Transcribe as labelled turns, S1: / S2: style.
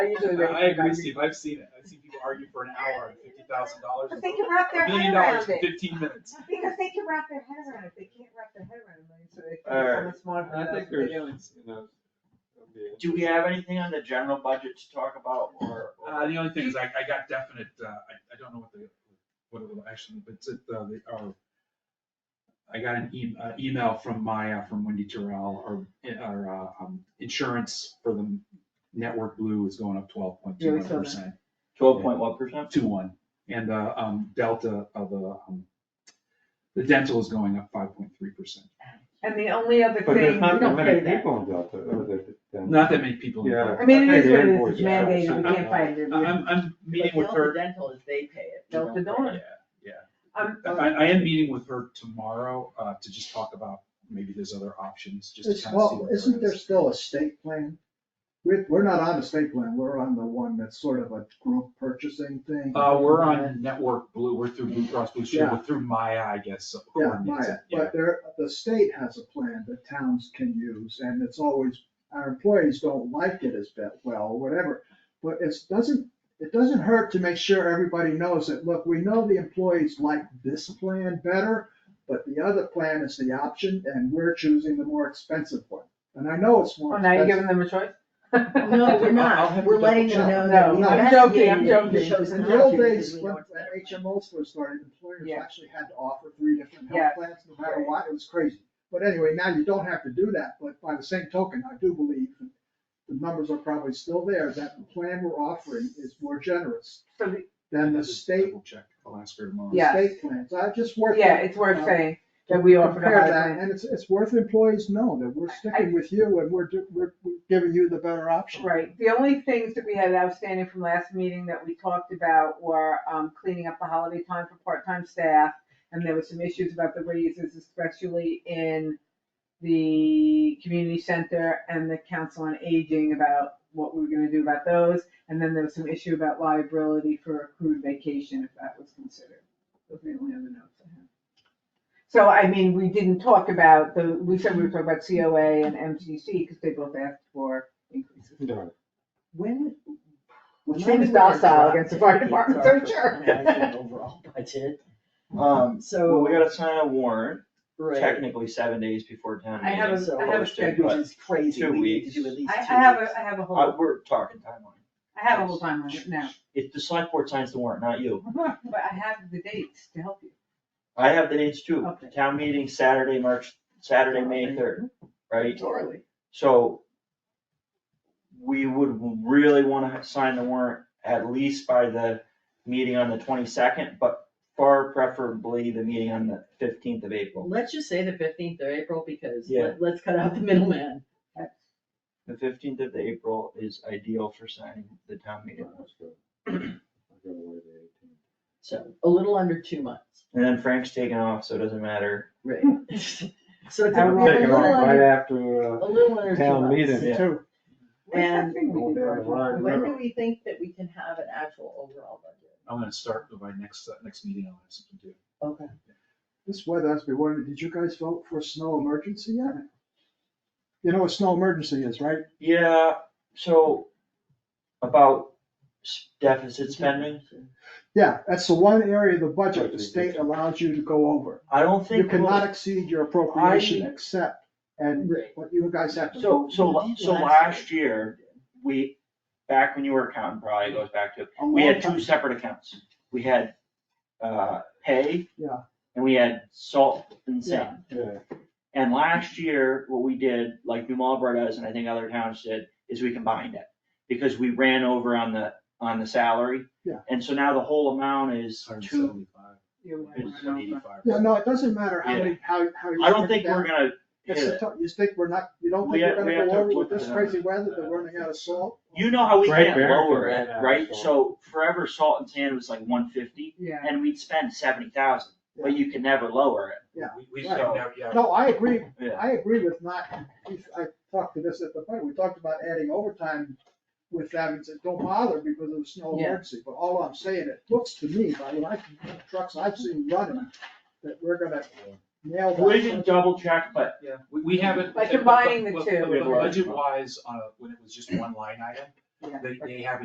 S1: I usually wait.
S2: I agree, Steve, I've seen it, I've seen people argue for an hour and fifty thousand dollars.
S1: But they can wrap their
S2: A
S1: head
S2: million dollars
S1: around
S2: in
S1: it,
S2: fifteen minutes.
S1: because they can wrap their head around it, they can't wrap their head around it, so they think
S3: Alright.
S1: someone's smart.
S3: I
S1: enough.
S3: think there's, you know. that'd be it.
S4: Do we have anything on the general budget to talk about or? or-
S2: Uh, the only thing is I, I got definite, uh, I, I don't know what the, what it will actually, but it's, at, uh, the, uh, I got an e- uh, email from Maya, from Wendy Terrell, or, or, uh, um, insurance for the network blue is going up twelve point two
S1: Yeah, we
S2: one
S1: saw
S2: percent.
S1: that.
S4: Twelve point one percent?
S2: two one, and the um delta of the um, the dental is going up five point three percent.
S1: And the only other
S3: But there's
S1: thing,
S3: not that
S1: don't
S3: many
S1: pay that.
S3: people in Delta, or that- that-
S2: Not that many people. in
S3: Yeah.
S1: I mean, it is
S3: Hey,
S1: what it is, it's
S3: the invoice is-
S1: mandated, we can't fight it.
S2: I- I'm I'm meeting with her.
S5: Dental is they pay it.
S1: Delta
S5: we don't pay
S1: Dawn.
S2: Yeah, yeah.
S1: Um,
S2: I I am meeting with her tomorrow uh to just talk about maybe there's other options, just to
S6: It's,
S2: kind of see.
S6: well,
S2: what there
S6: isn't there
S2: is.
S6: still a state plan? We're, we're not on the state plan, we're on the one that's sort of a group purchasing thing.
S2: Uh, we're on Network Blue, we're through Blue Cross Blue Shield,
S6: Yeah.
S2: we're through Maya, I guess. so
S6: Yeah,
S2: coordinates
S6: Maya,
S2: it, yeah.
S6: but there, the state has a plan that towns can use, and it's always, our employees don't like it as bet, well, or whatever. But it's, doesn't, it doesn't hurt to make sure everybody knows that, look, we know the employees like this plan better, but the other plan is the option, and we're choosing the more expensive one. And I know it's more
S1: well, now you're
S6: expensive.
S1: giving them a choice?
S5: No, we're
S2: I'll
S5: not,
S2: have
S5: we're
S2: to
S5: letting
S2: double
S5: them
S6: check.
S5: know that. we
S6: No, no, I'm
S5: investigated
S1: joking, I'm
S5: it and
S1: joking.
S5: chose
S6: In
S5: not
S6: the old
S5: to because
S6: days,
S5: we
S6: when
S5: know it's
S6: when
S5: better.
S6: HMOs first started, employers
S1: Yeah.
S6: actually had to offer three different
S1: Yes.
S6: health plans, no matter what, it was crazy. But anyway, now you don't have to do that, but by the same token, I do believe, that the numbers are probably still there, that the plan we're offering is more generous
S1: So, the-
S6: than
S2: I'll
S6: the
S2: just
S6: state,
S2: double Check, I'll ask her tomorrow.
S1: Yeah.
S6: state plans, I just worth.
S1: yeah, it's worth saying that we offered a
S6: compare
S1: higher
S6: that,
S1: plan.
S6: And it's, it's worth employees know that we're sticking with you and we're, do- we're we're giving you the better option.
S1: Right, the only things that we had outstanding from last meeting that we talked about were um, cleaning up the holiday time for part-time staff. And there were some issues about the raises, especially in the community center and the council on aging about what we were gonna do about those. And then there was some issue about liability for accrued vacation, if that was considered. Those were the only other notes I had. So, I mean, we didn't talk about the, we said we were talking about COA and MCC, because they both asked for increases.
S3: Yeah.
S5: When.
S1: Which
S5: when
S1: seems
S5: we were
S1: docile against the fire department, for
S5: adopted
S1: sure.
S5: the actual Overall budget,
S4: Um, well, we
S5: so.
S4: gotta sign a warrant,
S5: right.
S4: technically seven days before town
S1: I
S4: meeting.
S1: have
S5: so
S1: a, I have a
S4: posted,
S1: schedule.
S4: but
S5: Which is crazy,
S4: two
S5: we need to
S4: weeks.
S5: do at least
S1: I,
S5: two
S1: I
S5: weeks.
S1: have a, I have a
S4: I-
S1: whole,
S4: we're talking timeline.
S1: I have a whole timeline right now,
S4: If the select board signs the warrant, not you.
S1: but I have the dates to help you.
S4: I have the dates too.
S1: Okay.
S4: Town meeting Saturday, March, Saturday, May third, right?
S5: Totally.
S4: So we would really wanna ha- sign the warrant at least by the meeting on the twenty-second, but far preferably the meeting on the fifteenth of April.
S5: Let's just say the fifteenth of April because
S4: Yeah.
S5: let- let's cut out the middleman.
S4: The fifteenth of April is ideal for signing the town meeting.
S3: That's good. I'll go away to 18.
S5: So a little under two months,
S4: And then Frank's taking off, so it doesn't matter.
S5: right? So it's
S1: I
S5: gonna
S1: will
S5: be a
S3: Take it
S5: little
S3: off right
S5: under,
S3: after, uh,
S5: a little under two months.
S3: town meeting.
S4: Yeah.
S6: Too.
S1: What's that
S5: And-
S1: thing we did, Roger?
S3: Right.
S5: When do we think that we can have an actual overall budget?
S2: I'm gonna start with my next, uh, next meeting, I'll have something to do.
S5: Okay.
S6: This weather has been wondering, did you guys vote for snow emergency yet? You know what snow emergency is, right?
S4: Yeah, so about s- deficit spending,
S6: Yeah, that's the one area of the budget the
S3: Budget.
S6: state allows you to go over.
S4: I don't
S6: You
S4: think. we'll-
S6: cannot exceed your appropriation except, and
S5: Right.
S6: what you guys have to.
S4: So,
S6: vote
S4: so,
S5: We
S4: la-
S5: did
S4: so
S5: last
S4: last year, we, back when you were accounting, probably goes back to,
S6: a
S4: we
S6: long
S4: had
S6: time.
S4: two separate accounts. We had, uh, pay.
S6: Yeah.
S4: And we had salt and sand.
S3: yeah,
S4: And last year, what we did, like New Marlboro does, and I think other towns did, is we combined it. Because we ran over on the, on the salary.
S6: Yeah.
S4: And so now the whole amount is two,
S2: 175,
S1: Yeah, we had one over.
S2: 185.
S6: Yeah, no, it doesn't matter how many, how, how. you
S4: I don't
S6: break it
S4: think we're
S6: down.
S4: gonna hit
S6: It's the
S4: it.
S6: to- You think we're not, you don't
S4: We
S6: think we're
S4: have- we
S6: gonna
S4: have
S6: go
S4: to
S6: over with
S4: look
S6: this
S4: at
S6: crazy
S4: it.
S6: weather, they're running out of salt?
S4: You know how we
S3: Right,
S4: can't
S3: Barrington
S4: lower
S3: ran
S4: it,
S3: out of
S4: right?
S3: salt.
S4: So forever salt and sand was like one fifty.
S1: Yeah,
S4: and we'd spend seventy thousand, but
S6: Yeah.
S4: you can never lower it.
S6: Yeah.
S2: We, we,
S6: Right.
S2: yeah, yeah.
S6: No, I agree,
S4: Yeah.
S6: I agree with not, I talked to this at the point, we talked about adding overtime with that, and said, don't bother because of snow
S5: Yeah.
S6: emergency, but all I'm saying, it looks to me, by the I trucks I've seen running, that we're gonna nail that.
S4: We can double check, but
S2: Yeah, we, we haven't.
S1: By combining the two.
S4: Yeah.
S2: Budget wise, uh, when it was just one line item,
S1: Yeah.
S2: They, they have